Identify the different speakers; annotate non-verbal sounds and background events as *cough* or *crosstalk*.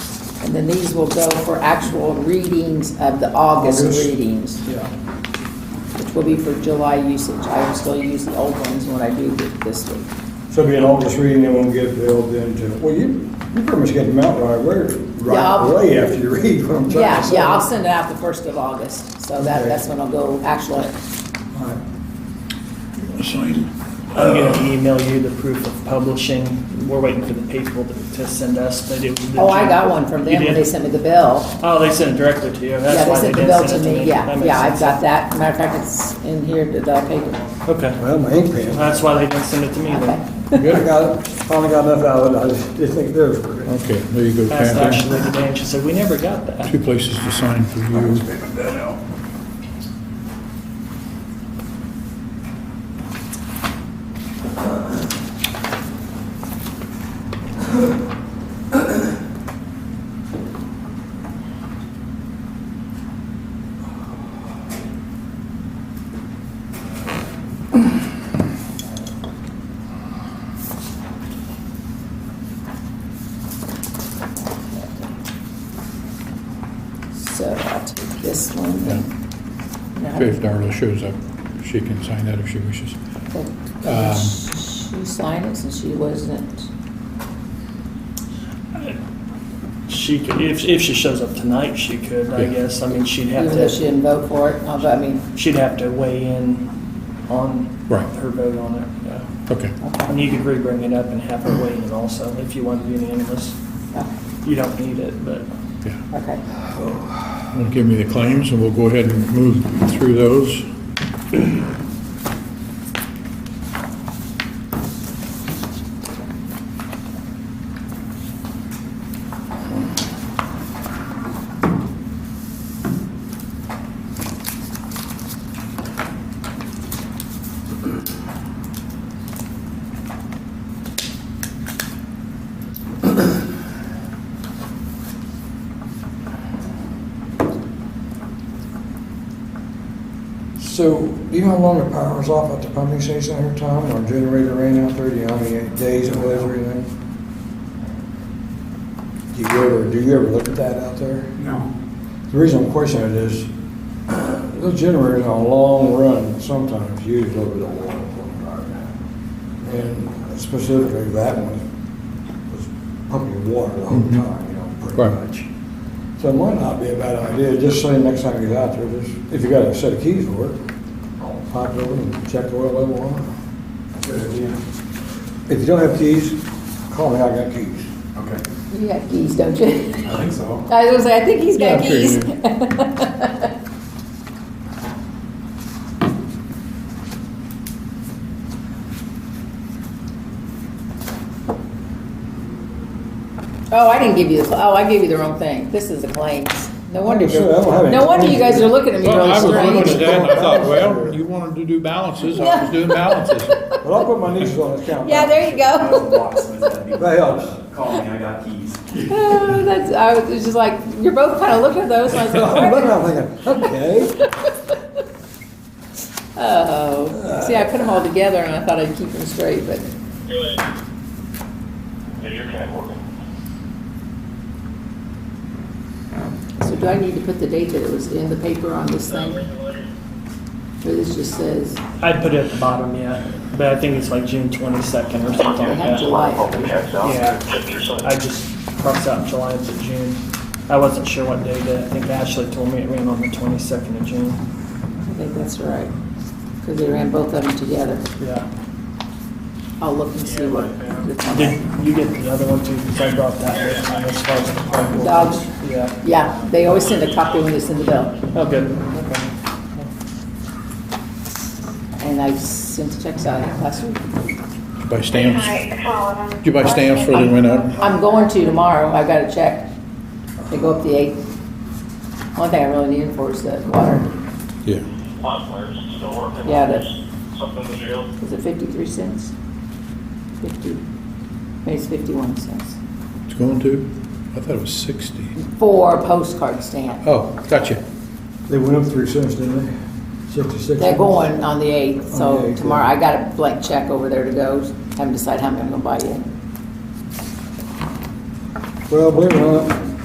Speaker 1: then these will go for actual readings of the August
Speaker 2: August.
Speaker 1: readings,
Speaker 2: Yeah,
Speaker 1: which will be for July usage. I will still use the old ones when I do th- this week.
Speaker 3: So it'll be an August reading, then we'll get billed into,
Speaker 2: well, you, you pretty much get them out right away,
Speaker 1: Yeah,
Speaker 2: right
Speaker 1: I'll-
Speaker 2: away after you read what I'm trying to
Speaker 1: Yeah,
Speaker 2: say.
Speaker 1: yeah, I'll send it out the first of August, so that,
Speaker 2: Okay.
Speaker 1: that's when I'll go actual.
Speaker 2: All right.
Speaker 4: Sign.
Speaker 5: I'm
Speaker 1: Uh,
Speaker 5: gonna email you the proof of publishing. We're waiting for the people to, to send us, but it.
Speaker 1: Oh, I got one from
Speaker 5: You
Speaker 1: them when
Speaker 5: did?
Speaker 1: they sent me the bill.
Speaker 5: Oh, they sent it directly to you.
Speaker 1: Yeah,
Speaker 5: That's
Speaker 1: they
Speaker 5: why they
Speaker 1: sent the
Speaker 5: didn't
Speaker 1: bill
Speaker 5: send
Speaker 1: to
Speaker 5: it to
Speaker 1: me,
Speaker 5: me. That
Speaker 1: yeah,
Speaker 5: makes
Speaker 1: yeah, I've
Speaker 5: sense.
Speaker 1: got that. Matter of fact, it's in here, the the paper.
Speaker 5: Okay,
Speaker 2: Well, my ink pen,
Speaker 5: that's why they didn't send it to me
Speaker 1: Okay.
Speaker 5: then.
Speaker 2: *laughs* good, I got it, finally got enough out of it, I just didn't think there was. All
Speaker 4: Okay, there you go,
Speaker 5: Asked
Speaker 4: Kathy.
Speaker 5: Ashley today and she said, we never got that.
Speaker 4: Two places to sign for you.
Speaker 1: So I'll take this one. Now,
Speaker 4: Okay, if Darla shows up, she can sign that if she wishes.
Speaker 5: Um,
Speaker 1: the- oh, She signed it since she wasn't,
Speaker 5: She could, if, if she shows up tonight, she could, I
Speaker 4: Yeah.
Speaker 5: guess. I mean, she'd
Speaker 1: even
Speaker 5: have
Speaker 1: though she
Speaker 5: to,
Speaker 1: didn't vote for it, although, I mean,
Speaker 5: she'd have to weigh in on
Speaker 4: Right.
Speaker 5: her vote on it, yeah.
Speaker 4: Okay,
Speaker 1: okay,
Speaker 5: And you could re-bring it up and have her weigh in also if you want to be unanimous. You don't need it, but.
Speaker 4: yeah.
Speaker 1: okay.
Speaker 4: Well, Give me the claims, and we'll go ahead and move through those.
Speaker 2: So, do you know how long the power was off at the pumping station every time, or generator ran out there, do you know how many days it was or anything? Do you ever, do you ever look at that out there?
Speaker 6: No.
Speaker 2: The reason I'm questioning it is, those generators on a long run, sometimes use a little bit of water for the drive. And specifically that one was pumping water the whole time, you know, pretty
Speaker 4: Right.
Speaker 2: much. So it might not be a bad idea, just say next time you get out there, just, if you got a set of keys for it, pop it over and check the oil level on it. If you don't have keys, call me, I got keys.
Speaker 6: Okay.
Speaker 1: You got keys, don't you? *laughs*
Speaker 6: I think so.
Speaker 1: I was gonna say, I think he's got
Speaker 4: Yeah, sure you
Speaker 1: keys.
Speaker 4: do.
Speaker 1: *laughs* Oh, I didn't give you, the. oh, I gave you the wrong thing. This is the claims. No wonder,
Speaker 2: Sure, I don't have
Speaker 1: you're-
Speaker 2: any
Speaker 1: no wonder you guys
Speaker 2: claims.
Speaker 1: are looking at me
Speaker 4: Well, I
Speaker 1: really
Speaker 4: was looking at
Speaker 1: strange.
Speaker 4: that, and I thought, well, you wanted to do balances, I was doing balances.
Speaker 2: But I'll put my nieces on this count.
Speaker 1: *laughs* Yeah,
Speaker 2: *laughs*
Speaker 1: there you
Speaker 6: I was a
Speaker 1: go.
Speaker 6: locksmith, that'd be-
Speaker 2: That helps.
Speaker 6: Call me, I got keys.
Speaker 1: Oh, That's, I was it's just like, you're both kind of looking at those, and I was like,
Speaker 2: I'm *laughs*
Speaker 1: "What?"
Speaker 2: looking, I'm thinking, okay.
Speaker 1: oh. See, I put them all together and I thought I'd keep them straight, but.
Speaker 7: Yeah, you're kind of working.
Speaker 1: So do I need to put the date that it was in the paper on this thing? Or this just says,
Speaker 5: I'd put it at the bottom, yeah, but I think it's like June twenty-second or something
Speaker 1: I
Speaker 5: like
Speaker 1: have
Speaker 5: that.
Speaker 1: July.
Speaker 7: Hope the checks out.
Speaker 5: Yeah.
Speaker 7: Check your son.
Speaker 5: I just crossed out July to June. I wasn't sure what day that, I think Ashley told me it ran on the twenty-second of June.
Speaker 1: I think that's right, because they ran both of them together.
Speaker 5: Yeah.
Speaker 1: I'll look and see what.
Speaker 5: Did you get the other one too, because I brought that with me as far as the park board.
Speaker 1: Dogs.
Speaker 5: Yeah,
Speaker 1: Yeah, they always send a copy when they send the bill,
Speaker 5: oh, good, okay.
Speaker 1: and I sent the checks out last week.
Speaker 4: Buy stamps,
Speaker 8: Hi, Colin.
Speaker 4: did you buy stamps for the went up?
Speaker 1: I'm going to tomorrow, I got a check. They go up the eighth. One thing I really need for is the water.
Speaker 4: Yeah.
Speaker 7: Hotwire's still working.
Speaker 1: Yeah, that-
Speaker 7: Something to do.
Speaker 1: Is it fifty-three cents? Fifty, maybe it's fifty-one cents.
Speaker 4: It's going to? I thought it was 60.
Speaker 1: Four postcard stamp.
Speaker 4: Oh, gotcha.
Speaker 2: They went up three cents, didn't they? Sixty-six.
Speaker 1: They're going on the eighth,
Speaker 2: On the
Speaker 1: so
Speaker 2: 8th,
Speaker 1: tomorrow,
Speaker 2: yeah.
Speaker 1: I got a blank check over there to go, haven't decided how many I'm gonna buy yet.
Speaker 2: Well, believe it or not,